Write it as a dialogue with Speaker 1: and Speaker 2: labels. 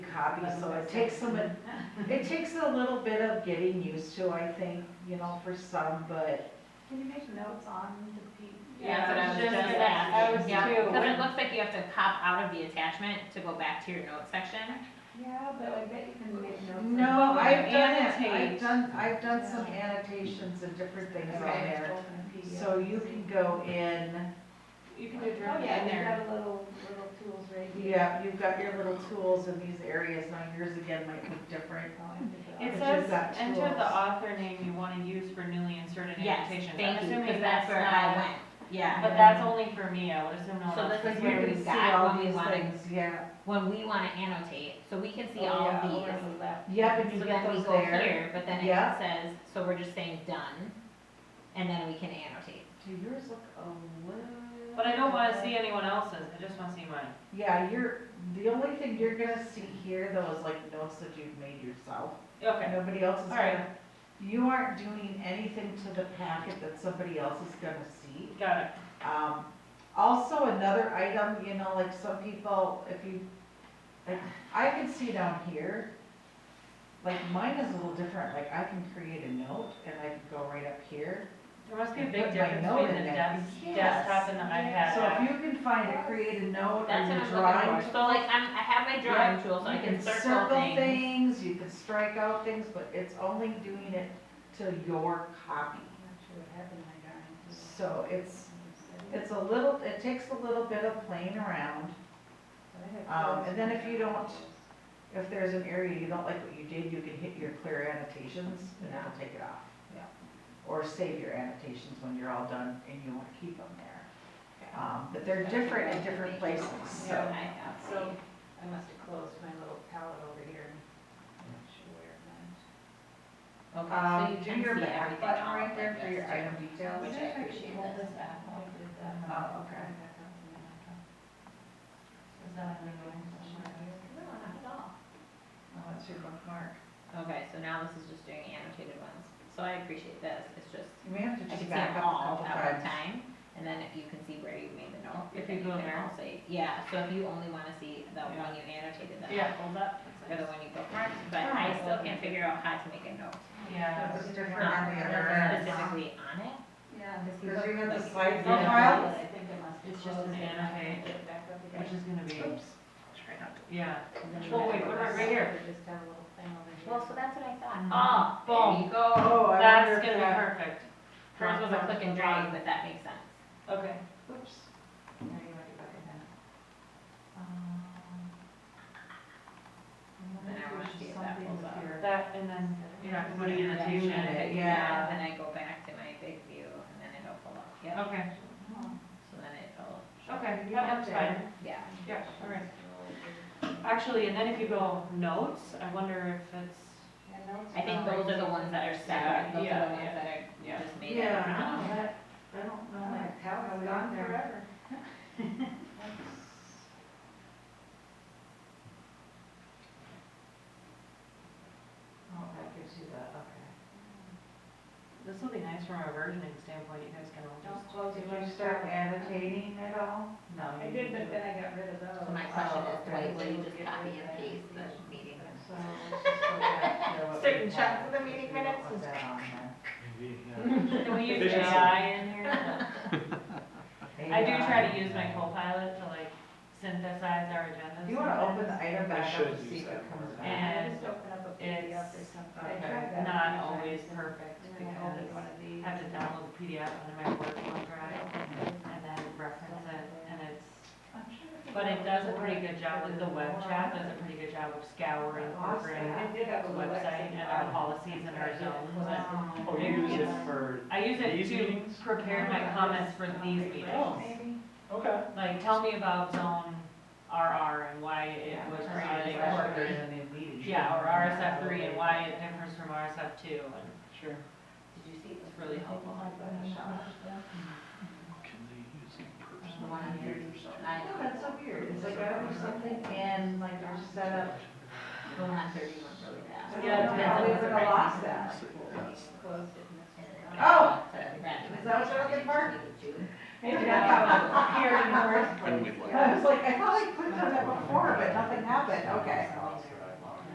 Speaker 1: hobby, so it takes some, it takes a little bit of getting used to, I think, you know, for some, but
Speaker 2: Can you make notes on the P?
Speaker 3: Yeah, that's what I was just
Speaker 2: gonna
Speaker 3: asking.
Speaker 2: ask.
Speaker 3: Yeah, Because it
Speaker 2: Yeah,
Speaker 3: looks like you have to pop out of the attachment to go back to your notes section.
Speaker 2: Yeah, but I bet you can make notes. on
Speaker 1: no,
Speaker 2: it.
Speaker 1: I've done it, I've
Speaker 4: Annotate.
Speaker 1: done, I've done some annotations and different things on
Speaker 2: Okay,
Speaker 1: there.
Speaker 2: open a PDF.
Speaker 1: So you can go in,
Speaker 4: You can do it
Speaker 2: Oh,
Speaker 4: directly
Speaker 2: yeah,
Speaker 4: in
Speaker 2: you've
Speaker 4: there.
Speaker 2: got a little, little tools right here.
Speaker 1: yeah, you've got your little tools in these areas, now yours again might look different.
Speaker 2: So I have to go.
Speaker 1: But
Speaker 4: It says,
Speaker 1: you've got
Speaker 4: enter
Speaker 1: tools.
Speaker 4: the author name you want to use for newly inserted
Speaker 3: Yes,
Speaker 4: annotations.
Speaker 3: thank
Speaker 4: I'm
Speaker 3: you,
Speaker 4: assuming
Speaker 3: because that's where I
Speaker 4: not-
Speaker 3: went. Yeah.
Speaker 4: But that's only for me, I would assume no one
Speaker 3: So
Speaker 4: else.
Speaker 3: this
Speaker 1: But
Speaker 3: is
Speaker 1: you
Speaker 3: where we
Speaker 1: can see
Speaker 3: got
Speaker 1: all
Speaker 3: what we
Speaker 1: these
Speaker 3: wanted,
Speaker 1: things, Yeah,
Speaker 3: when we want to annotate, so we can see
Speaker 2: Oh,
Speaker 3: all
Speaker 2: yeah,
Speaker 3: of
Speaker 2: over
Speaker 3: these.
Speaker 2: the left.
Speaker 1: yeah, but you
Speaker 3: So
Speaker 1: get
Speaker 3: then we
Speaker 1: those
Speaker 3: go
Speaker 1: there.
Speaker 3: here, but then it
Speaker 1: Yeah.
Speaker 3: says, so we're just saying done, and then we can annotate.
Speaker 1: Do yours look a little?
Speaker 4: But I don't want to see anyone else's, I just want to see mine.
Speaker 1: Yeah, you're, the only thing you're gonna see here though is like notes that you've made yourself.
Speaker 4: Okay,
Speaker 1: Nobody else is
Speaker 4: All right.
Speaker 1: gonna, you aren't doing anything to the packet that somebody else is gonna see.
Speaker 4: got it.
Speaker 1: Um, also another item, you know, like some people, if you, like, I can see down here, like mine is a little different, like I can create a note and I can go right up here.
Speaker 4: There must be a
Speaker 1: And
Speaker 4: big
Speaker 1: put my
Speaker 4: difference
Speaker 1: note
Speaker 4: between
Speaker 1: in
Speaker 4: the
Speaker 1: there.
Speaker 4: desk-
Speaker 1: Yes.
Speaker 4: desktop and the iPad.
Speaker 1: So if
Speaker 4: app.
Speaker 1: you can find a create a note
Speaker 3: That's
Speaker 1: and
Speaker 3: what
Speaker 1: your
Speaker 3: I'm looking
Speaker 1: drawing.
Speaker 3: for, so like, I'm, I have my drawing tool, so I
Speaker 1: You
Speaker 3: can circle things.
Speaker 1: things, you can strike out things, but it's only doing it to your copy.
Speaker 2: I'm not sure what happened, I got into it.
Speaker 1: So it's, it's a little, it takes a little bit of playing around.
Speaker 2: But I had
Speaker 1: um,
Speaker 2: those.
Speaker 1: and then if you don't- If there's an area you don't like what you did, you can hit your clear annotations and it'll take it off.
Speaker 2: Yeah.
Speaker 1: Or save your annotations when you're all done and you want to keep them there. Um, but they're different in different places,
Speaker 3: So
Speaker 1: so.
Speaker 3: I have
Speaker 2: So
Speaker 3: these.
Speaker 2: I must have closed my little palette over here. I'm not sure where it went.
Speaker 3: Okay, so
Speaker 1: Um,
Speaker 3: you
Speaker 1: do
Speaker 3: can see
Speaker 1: your back
Speaker 3: everything
Speaker 1: button
Speaker 3: all
Speaker 1: right
Speaker 3: like
Speaker 1: there for
Speaker 3: this,
Speaker 1: your
Speaker 3: too.
Speaker 1: item details.
Speaker 3: Which I appreciate
Speaker 2: Hold
Speaker 3: this.
Speaker 2: this back while I did that.
Speaker 1: Oh, okay.
Speaker 2: Is that a new one? No, not at all.
Speaker 1: Oh, that's your bookmark.
Speaker 3: Okay, so now this is just doing annotated ones, so I appreciate this, it's just,
Speaker 1: You may have to
Speaker 3: I
Speaker 1: just
Speaker 3: can see them
Speaker 1: back up a
Speaker 3: all
Speaker 1: couple times.
Speaker 3: at one time, and then if you can see where you made the note.
Speaker 4: If you
Speaker 3: then
Speaker 4: go
Speaker 3: can
Speaker 4: there.
Speaker 3: also- Yeah, so if you only wanna see the
Speaker 4: Yeah.
Speaker 3: one you annotated, then
Speaker 4: Yeah, hold up.
Speaker 3: or the one you bookmarked, but I still can't figure out how to make a note.
Speaker 4: Yeah.
Speaker 1: It's different on
Speaker 3: Not
Speaker 1: the other end.
Speaker 3: specifically on it,
Speaker 2: Yeah.
Speaker 3: Because
Speaker 1: Because you have the
Speaker 3: Like,
Speaker 1: slide
Speaker 4: no
Speaker 1: view.
Speaker 4: problem.
Speaker 2: I think it must be
Speaker 4: It's just
Speaker 2: closed
Speaker 4: an
Speaker 2: and I had to
Speaker 4: annotate,
Speaker 2: get back up again.
Speaker 4: Which is gonna be,
Speaker 1: Oops. Try not to.
Speaker 4: yeah.
Speaker 3: and then you
Speaker 4: Oh,
Speaker 3: have
Speaker 4: wait,
Speaker 3: the
Speaker 4: what
Speaker 3: rest.
Speaker 4: about right here?
Speaker 2: We Just have a little thing over here.
Speaker 3: Well, so that's what I
Speaker 4: Ah,
Speaker 3: thought.
Speaker 4: boom.
Speaker 3: There you go.
Speaker 1: Oh, I
Speaker 4: That's
Speaker 1: wonder if
Speaker 4: gonna be
Speaker 1: that.
Speaker 4: perfect.
Speaker 3: Hers was a click and drag, but that makes sense.
Speaker 4: Okay.
Speaker 1: Oops.
Speaker 2: There you go, you got it then.
Speaker 4: Um,
Speaker 3: Then I wanna see if that
Speaker 2: Something
Speaker 3: pulls
Speaker 2: with
Speaker 3: up.
Speaker 2: your-
Speaker 4: That, and then, yeah, put an
Speaker 3: Yeah,
Speaker 4: annotation.
Speaker 3: and then I-
Speaker 1: yeah.
Speaker 3: Then I go back to my big view and then it'll pull up, yep,
Speaker 4: Okay,
Speaker 2: Oh,
Speaker 3: so then it'll. show.
Speaker 4: okay, that looks fine.
Speaker 3: Yeah.
Speaker 4: Yeah, all right. Actually, and then if you go notes, I wonder if it's,
Speaker 2: Yeah, notes
Speaker 3: I think
Speaker 2: are
Speaker 3: those are the
Speaker 2: already-
Speaker 3: ones that are
Speaker 4: Yeah,
Speaker 3: separate, Um, those
Speaker 4: yeah,
Speaker 3: are the ones
Speaker 4: yeah,
Speaker 3: that
Speaker 4: yeah.
Speaker 3: are just made
Speaker 1: Yeah,
Speaker 3: up.
Speaker 1: I
Speaker 3: from-
Speaker 1: don't know that, I don't
Speaker 2: Oh,
Speaker 1: know
Speaker 2: my
Speaker 1: that.
Speaker 2: palette
Speaker 1: I've
Speaker 2: was
Speaker 1: gone
Speaker 2: on
Speaker 1: there.
Speaker 2: forever.
Speaker 1: Oh, that gives you the, okay.
Speaker 4: this will be nice from a versioning standpoint, you guys can all
Speaker 2: Don't
Speaker 4: just.
Speaker 2: close it.
Speaker 1: Did you start annotating at all? No.
Speaker 2: I
Speaker 1: you
Speaker 2: did, but
Speaker 1: didn't.
Speaker 2: then I got rid of those.
Speaker 3: So my question
Speaker 1: Oh,
Speaker 3: is,
Speaker 1: okay.
Speaker 3: Dwight, will you just
Speaker 2: Get
Speaker 3: copy
Speaker 2: rid of
Speaker 3: and
Speaker 2: that
Speaker 3: paste
Speaker 2: annotation.
Speaker 3: the meeting minutes?
Speaker 1: So let's just go back to what we
Speaker 3: Certain
Speaker 1: had,
Speaker 3: chunks of the meeting
Speaker 1: because we don't
Speaker 3: minutes
Speaker 1: want
Speaker 3: is-
Speaker 1: that on there.
Speaker 5: Maybe, yeah.
Speaker 4: Can we use
Speaker 5: Efficiency.
Speaker 4: AI in here? I do
Speaker 1: Yeah.
Speaker 4: try to use my Copilot to like synthesize our agendas.
Speaker 1: Do you wanna open the item
Speaker 5: I
Speaker 1: back up
Speaker 5: should
Speaker 1: to see if
Speaker 5: use that
Speaker 1: it comes
Speaker 5: more.
Speaker 1: back?
Speaker 2: I
Speaker 4: And
Speaker 2: just open up a PDF or
Speaker 4: it's
Speaker 2: something. I tried that
Speaker 4: Okay,
Speaker 2: a
Speaker 4: not
Speaker 2: few
Speaker 4: always
Speaker 2: times,
Speaker 4: perfect
Speaker 2: And then I
Speaker 4: because
Speaker 2: opened one of
Speaker 4: I
Speaker 2: these.
Speaker 4: have to download the PDF onto my work hard drive
Speaker 2: and-
Speaker 4: and then reference it and it's,
Speaker 2: I'm sure if
Speaker 4: but it does a pretty good job with the web chat, does
Speaker 2: doesn't
Speaker 4: a pretty good job of scouring,
Speaker 2: I
Speaker 4: ordering
Speaker 2: did have
Speaker 4: the
Speaker 2: a little
Speaker 4: website
Speaker 2: Lexi
Speaker 4: and our
Speaker 2: bar.
Speaker 4: policies and our zones. and
Speaker 2: Oh.
Speaker 5: Or you use Oh, it for,
Speaker 4: I use it
Speaker 5: These
Speaker 4: to
Speaker 5: meetings?
Speaker 4: prepare my comments for these meetings.
Speaker 2: Maybe.
Speaker 5: okay.
Speaker 4: Like, tell me about zone RR and why it
Speaker 1: Yeah,
Speaker 4: was
Speaker 1: or
Speaker 4: created
Speaker 1: RSF
Speaker 4: or
Speaker 1: three and then meeting.
Speaker 4: Yeah, or RSF three and why it differs from RSF two and
Speaker 1: Sure.
Speaker 3: Did you see
Speaker 4: it's really helpful.
Speaker 5: Can they use it
Speaker 3: the one on your,
Speaker 1: I
Speaker 3: I
Speaker 1: know, that's so weird, it's like I order something and like our setup,
Speaker 3: The one on thirty went really
Speaker 1: I
Speaker 3: fast.
Speaker 1: don't
Speaker 4: Yeah,
Speaker 1: know
Speaker 4: it
Speaker 1: how
Speaker 4: depends on
Speaker 1: we
Speaker 4: what's
Speaker 1: would
Speaker 4: right.
Speaker 1: have lost that.
Speaker 2: Closed it and
Speaker 3: And
Speaker 2: it's-
Speaker 3: then-
Speaker 1: Oh!
Speaker 3: Right.
Speaker 1: Is that what you're looking for?
Speaker 2: Maybe
Speaker 1: that's how it appeared in the first
Speaker 5: And we'd
Speaker 1: Yeah, I was like, I thought I clicked on it before, but nothing happened, okay.